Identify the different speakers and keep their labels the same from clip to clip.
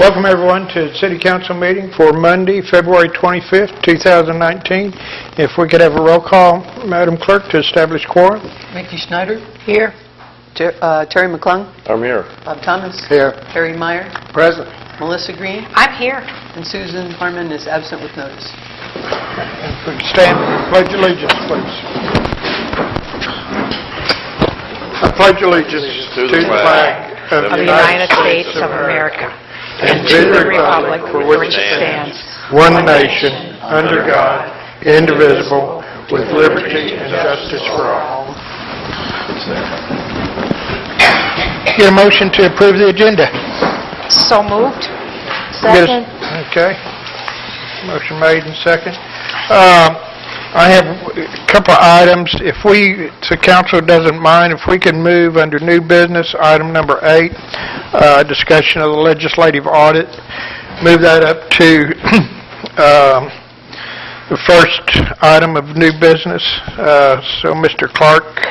Speaker 1: Welcome, everyone, to the City Council meeting for Monday, February 25th, 2019. If we could have a roll call, Madam Clerk, to establish quorum.
Speaker 2: Mickey Schneider? Here. uh, Terry McClung?
Speaker 3: I'm here.
Speaker 2: Bob Thomas?
Speaker 1: Here.
Speaker 2: Harry Meyer?
Speaker 1: Present.
Speaker 2: Melissa Green?
Speaker 4: I'm here.
Speaker 2: And Susan Harmon is absent with notice.
Speaker 1: If we could stand, pledge allegiance, please. I pledge allegiance to the flag of
Speaker 4: Of the United States of America and to the republic for which it stands,
Speaker 1: one nation, under God, indivisible, with liberty and justice for all. Get a motion to approve the agenda.
Speaker 4: so moved.
Speaker 1: Get a- Okay. Motion made and second. Um, I have a couple of items. If we, if the council doesn't mind, if we can move under new business, item number eight, uh, discussion of the legislative audit, move that up to um, the first item of new business, Uh, so Mr. Clark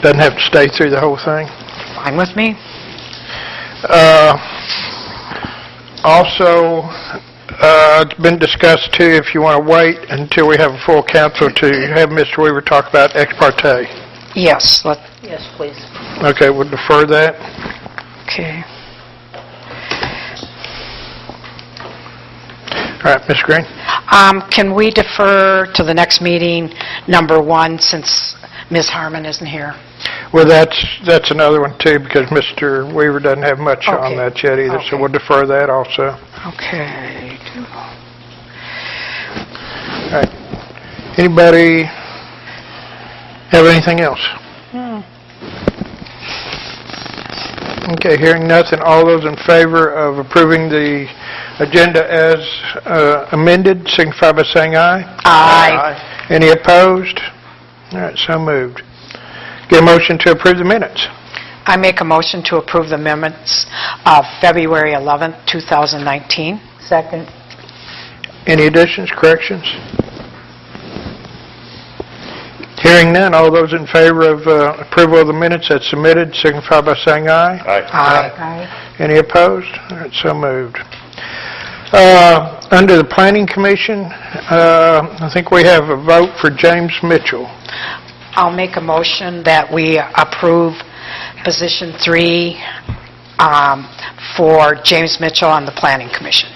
Speaker 1: doesn't have to stay through the whole thing.
Speaker 4: Fine with me?
Speaker 1: Uh, Also, uh, it's been discussed too, if you want to wait until we have a full council to have Mr. Weaver talk about ex parte.
Speaker 4: Yes, let,
Speaker 2: Yes, please.
Speaker 1: Okay, we'll defer that.
Speaker 4: okay.
Speaker 1: All right, Ms. Green?
Speaker 4: Um, Can we defer to the next meeting, number one, since Ms. Harmon isn't here?
Speaker 1: Well, that's, that's another one too, because Mr. Weaver doesn't have much on
Speaker 4: Okay.
Speaker 1: that yet either, so
Speaker 4: Okay.
Speaker 1: we'll defer that also.
Speaker 4: Okay.
Speaker 1: All right. Anybody have anything else? Okay, hearing nothing, all those in favor of approving the agenda as uh, amended, signify by saying aye.
Speaker 4: Aye.
Speaker 1: Any opposed? All right, so moved. Get a motion to approve the minutes.
Speaker 4: I make a motion to approve the amendments of February 11th, 2019.
Speaker 2: Second.
Speaker 1: Any additions, corrections? Hearing none, all those in favor of uh, approval of the minutes as submitted, signify by saying aye.
Speaker 3: Aye.
Speaker 4: Aye.
Speaker 1: Any opposed? All right, so moved. Uh, Under the Planning Commission, uh, I think we have a vote for James Mitchell.
Speaker 4: I'll make a motion that we approve position three um, for James Mitchell on the Planning Commission.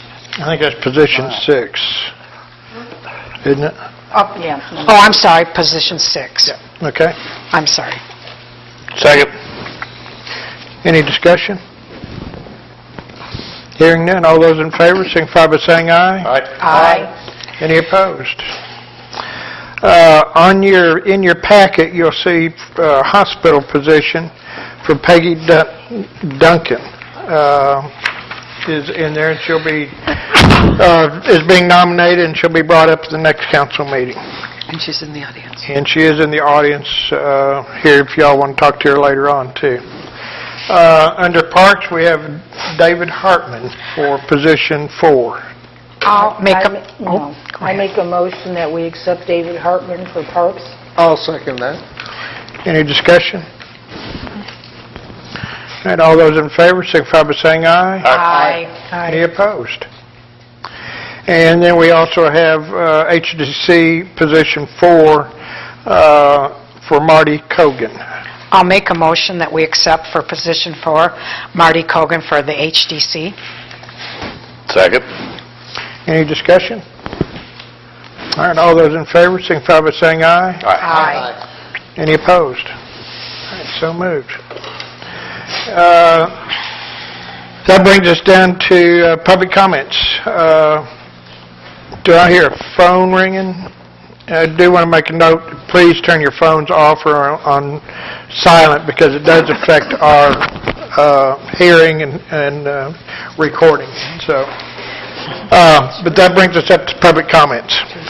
Speaker 1: I think that's position six, isn't it?
Speaker 4: Oh, I'm sorry, position six.
Speaker 1: Okay.
Speaker 4: I'm sorry.
Speaker 1: Second. Any discussion? Hearing none, all those in favor signify by saying aye.
Speaker 3: Aye.
Speaker 4: Aye.
Speaker 1: Any opposed? Uh, On your, in your packet, you'll see uh, hospital position for Peggy Dun- Duncan uh, is in there, and she'll be, uh, is being nominated, and she'll be brought up to the next council meeting.
Speaker 2: And she's in the audience.
Speaker 1: And she is in the audience uh, here if y'all want to talk to her later on, too. Uh, Under Parks, we have David Hartman for position four.
Speaker 4: I'll make
Speaker 5: I
Speaker 4: a...
Speaker 5: ma-
Speaker 4: oh,
Speaker 5: no.
Speaker 4: go
Speaker 5: I
Speaker 4: ahead.
Speaker 5: make a motion that we accept David Hartman for Parks.
Speaker 1: I'll second that. Any discussion? All right, all those in favor, signify by saying aye.
Speaker 4: Aye.
Speaker 1: Any opposed? And then we also have uh, HDC position four uh, for Marty Cogan.
Speaker 4: I'll make a motion that we accept for position four, Marty Kogan for the HDC.
Speaker 3: Second.
Speaker 1: Any discussion? All right, all those in favor, signify by saying aye.
Speaker 4: Aye.
Speaker 1: Any opposed? All right, So moved. Uh, That brings us down to uh, public comments. Uh, Do I hear a phone ringing? I do want to make a note, please turn your phones off or on silent because it does affect our uh, hearing and- and uh, recording, so. uh, But that brings us up to public comments.